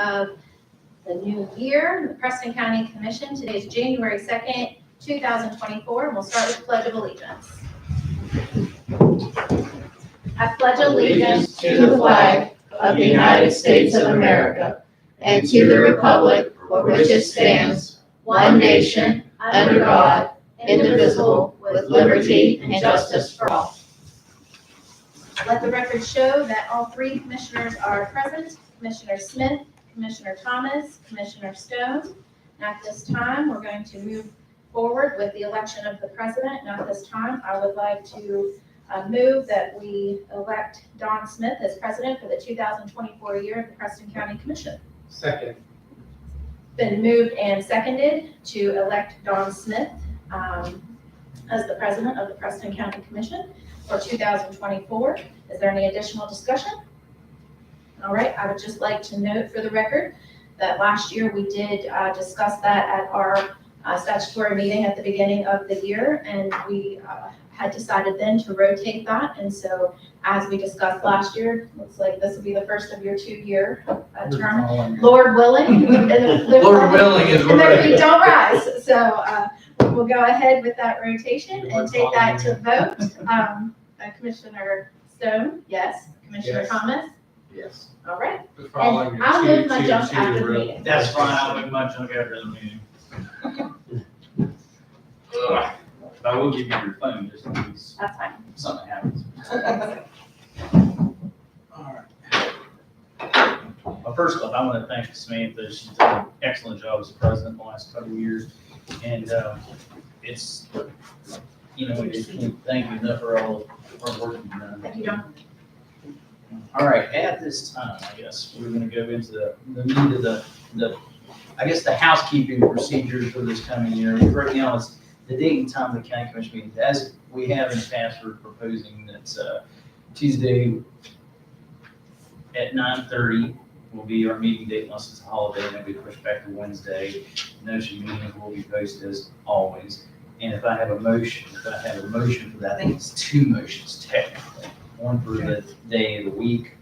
of the new year, the Preston County Commission. Today is January 2nd, 2024, and we'll start with Pledge of Allegiance. I pledge allegiance to the flag of the United States of America and to the republic for which it stands, one nation, under God, indivisible, with liberty and justice for all. Let the record show that all three commissioners are present, Commissioner Smith, Commissioner Thomas, Commissioner Stone. And At this time, we're going to move forward with the election of the president. And at this time, I would like to uh, move that we elect Don Smith as president for the 2024 year of the Preston County Commission. Second. Been moved and seconded to elect Don Smith um, as the president of the Preston County Commission for 2024. Is there any additional discussion? All right, I would just like to note for the record that last year we did uh, discuss that at our uh, statutory meeting at the beginning of the year, and we uh, had decided then to rotate that. And so as we discussed last year, looks like this will be the first of your two-year uh, term. Lord willing. Lord willing is And then we right. don't rise, so uh, we'll go ahead with that rotation and take that to vote. Um, uh, Commissioner Stone, yes, Commissioner Yes. Thomas, Yes. all right. The following And are I'll two- move my two- junk two after the real- meeting. That's fine, I'll be much longer after the meeting. Ugh, But I will give you your phone just in case That's fine. something happens. Well, first off, I want to thank Samantha. She's done an excellent job as president the last couple of years. And um, it's, you know, we just can't thank you enough for all, for working you've done. Thank you, John. All right, at this time, I guess, we're gonna go into the, the meat of the, the, I guess, the housekeeping procedures for this coming year. Right now, it's the date and time of the county commission meetings. As we have in the past, we're proposing that, uh, Tuesday at nine thirty will be our meeting date unless it's a holiday, and it'll be pushed back to Wednesday. Notion meetings will be posted as always. And if I have a motion, if I have a motion for that, I think it's two motions technically. One for the day of the week,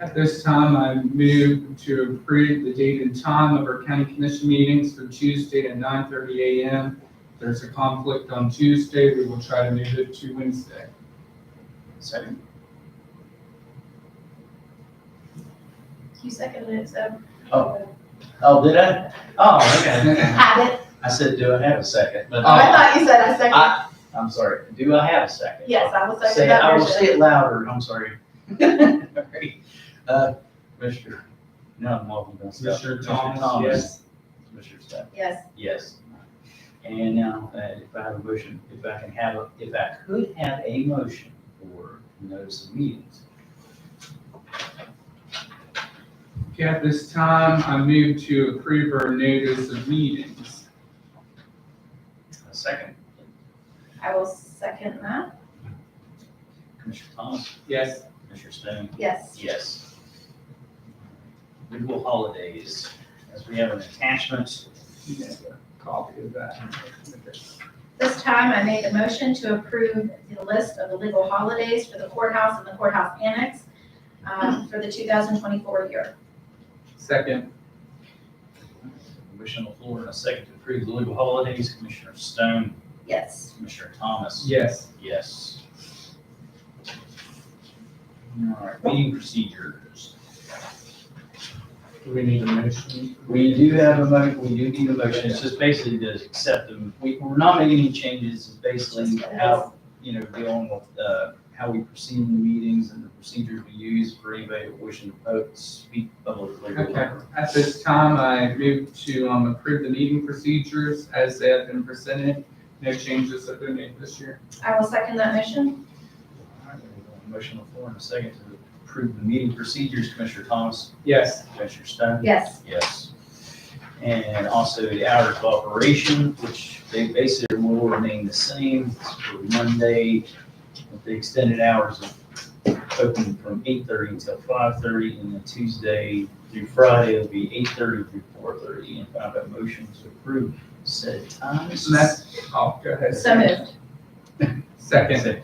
At this time, I move to approve the date and time of our county commission meetings for Tuesday at nine thirty AM. If There's a conflict on Tuesday, we will try to move it to Wednesday. Second. You seconded it, so. Oh. Oh, did I? Oh, okay. Have it. I said, do I have a second? But Oh, I thought you said I seconded. I, I'm sorry. Do I have a second? Yes, I will Say, second I that will say version. it louder. I'm sorry. Alright. Uh, Mr. No, I'm walking down. stuff. Mr. Mr. Thomas, yes. Mr. Stubbs. Yes, Yes. And now, uh, if I have a motion, if I can have, a if I could have a motion for notice of meetings. Okay, at this time, I move to approve our notice of meetings. A second, I will second that. Commissioner Thomas, Yes. Commissioner Stone. Yes. Yes. Legal holidays, as we have an attachment. Copy of that. This time I made a motion to approve the list of the legal holidays for the courthouse and the courthouse annex um, for the 2024 year. Second, Motion on the floor and a second to approve the legal holidays. Commissioner Stone, Yes. Commissioner Thomas. yes. Yes. All right, meeting procedures. Do we need a motion? We do have a mo, we do need a motion. It's just basically to accept them. We, we're not making any changes. It's basically how, you know, dealing with, uh, how we proceed in the meetings and the procedures we use for anybody wishing to vote, speak publicly. or Okay, whatever. at this time, I move to um, approve the meeting procedures as they have been presented. No changes have been made this year. I will second that motion. All right, we have a Motion on the floor and a second to approve the meeting procedures, Commissioner Thomas, Yes, Commissioner Stone. Yes. Yes. And also the hours of operation, which they basically will remain the same for Monday, with the extended hours of open from eight thirty until five thirty, and then Tuesday through Friday it'll be eight thirty through four thirty. And if I have a motion to approve said times. and that's, oh, go ahead. So moved. Second,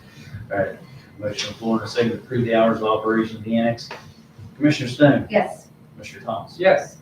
All right, motion on the floor and a second to approve the hours of operation of the annex. Commissioner Stone, Yes. Commissioner Thomas, yes,